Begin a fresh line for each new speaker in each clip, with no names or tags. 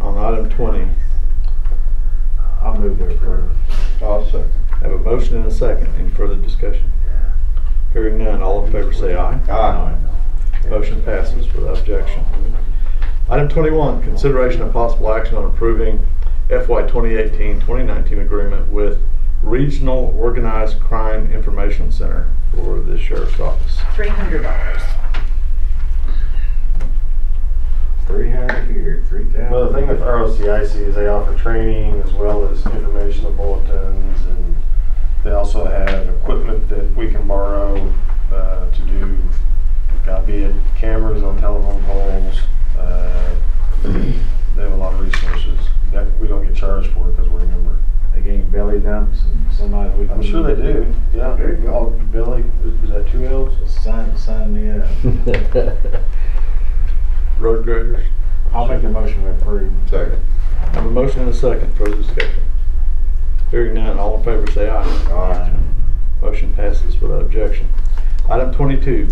item twenty.
I'll move to approve.
I'll second.
I Have a motion and a second. Any further discussion? Hearing none, all in favor say aye.
Aye.
Motion passes without objection. Item twenty-one, consideration of possible action on approving FY 2018-2019 agreement with Regional Organized Crime Information Center for the Sheriff's Office.
Three hundred dollars.
Three hundred here, three thousand.
Well, the thing with ROCIC is they offer training as well as informational bulletins, and they also have equipment that we can borrow uh, to do, God be it cameras on telephone poles. uh, They have a lot of resources that we don't get charged for because we're a member.
They gave belly dumps and somebody we.
I'm sure they do, yeah.
There you go.
Oh, Billy, is is that two L's?
Sign, sign me up.
Road graders.
I'll make a motion to approve.
Second.
I Have a motion and a second. Further discussion? Hearing none, all in favor say aye.
Aye.
Motion passes without objection. Item twenty-two,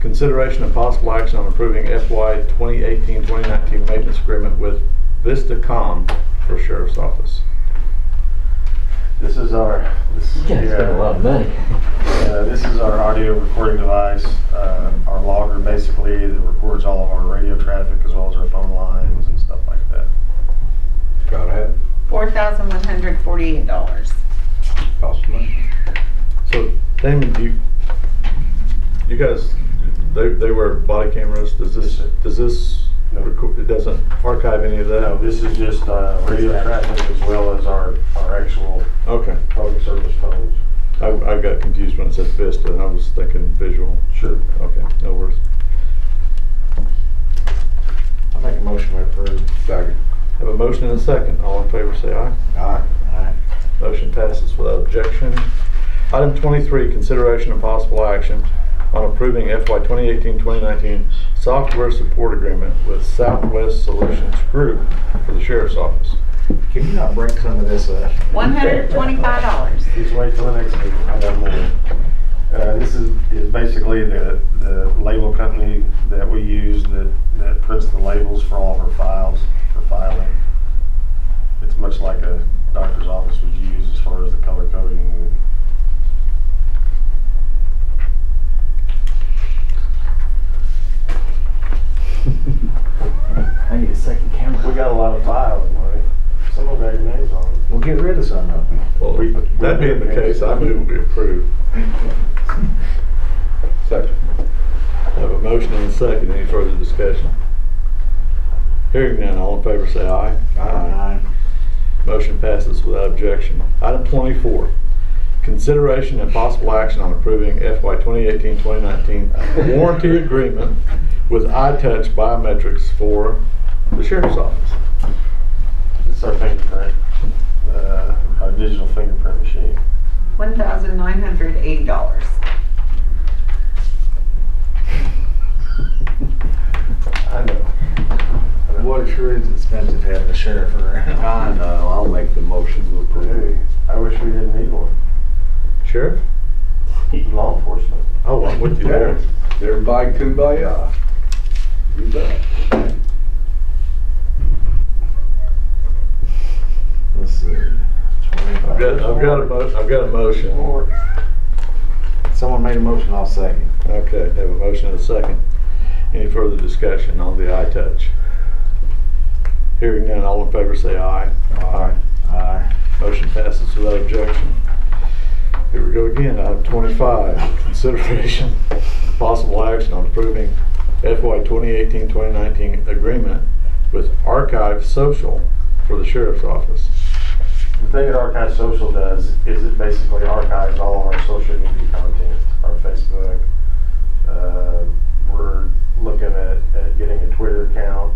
consideration and possible action on approving FY 2018-2019 maintenance agreement with VistaCom for Sheriff's Office.
This is our, this.
You guys spend a lot of money.
Uh, This is our audio recording device, uh, our logger basically that records all of our radio traffic as well as our phone lines and stuff like that.
Gotta have, it.
Four thousand one hundred forty-eight dollars.
costs money.
So Damon, do you, you guys, they, they wear body cameras, does this,
Yes, sir.
does this,
No.
record- it doesn't archive any of that?
No, this is just uh, radio traffic as well as our, our actual
Okay,
public service phones.
I, I got confused when it said Vista and I was thinking visual.
Sure.
Okay, no worries.
I'll make a motion to approve.
Second.
Have a motion and a second. All in favor say aye.
Aye.
Aye.
Motion passes without objection. Item twenty-three, consideration and possible action on approving FY 2018-2019 software support agreement with Southwest Solutions Group for the Sheriff's Office.
Can you not break some of this up?
One hundred twenty-five dollars.
Please wait till the next meeting, I got more. Uh, This is, is basically the, the label company that we use that, that prints the labels for all of our files, for filing. It's much like a doctor's office would use as far as the color coding and
I need a second camera.
We got a lot of files, Marty. Some of our names on them.
We'll get rid of some of them.
Well,
We-
that being the case, I move we approve.
Second.
I Have a motion and a second. Any further discussion? Hearing none, all in favor say aye. Motion passes without objection. Item twenty-four, consideration and possible action on approving FY 2018-2019 warranty agreement with iTouch Biometrics for the Sheriff's Office.
This is our fingerprint, uh, our digital fingerprint machine.
One thousand nine hundred eighty dollars.
I know. I know.
What it sure is expensive having a sheriff around.
I know, I'll make the motion to
Hey, I wish we didn't need one.
Sheriff?
Law enforcement.
Oh, I'm with you there.
Everybody kumbaya. You bet.
Let's see.
I've got, I've got a mo, I've got a motion.
Someone made a motion, I'll second.
Okay, have a motion and a second. Any further discussion on the iTouch? Hearing none, all in favor say aye.
Aye.
Motion passes without objection. Here we go again, item 25, consideration, possible action on approving FY 2018-2019 agreement with Archive Social for the Sheriff's Office.
The thing that Archive Social does is it basically archives all of our social media content, our Facebook. Uh, We're looking at, at getting a Twitter account.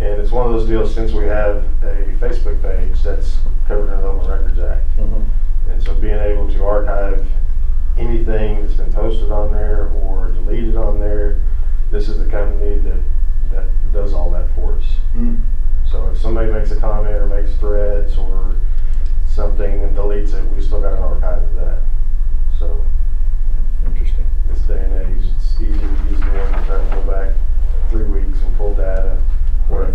And it's one of those deals, since we have a Facebook page, that's covered under the Open Records Act. And so being able to archive anything that's been posted on there or deleted on there, this is the company that, that does all that for us. So if somebody makes a comment or makes threads or something and deletes it, we still got an archive of that. So
Interesting.
this day and age, it's easy to use the one to try to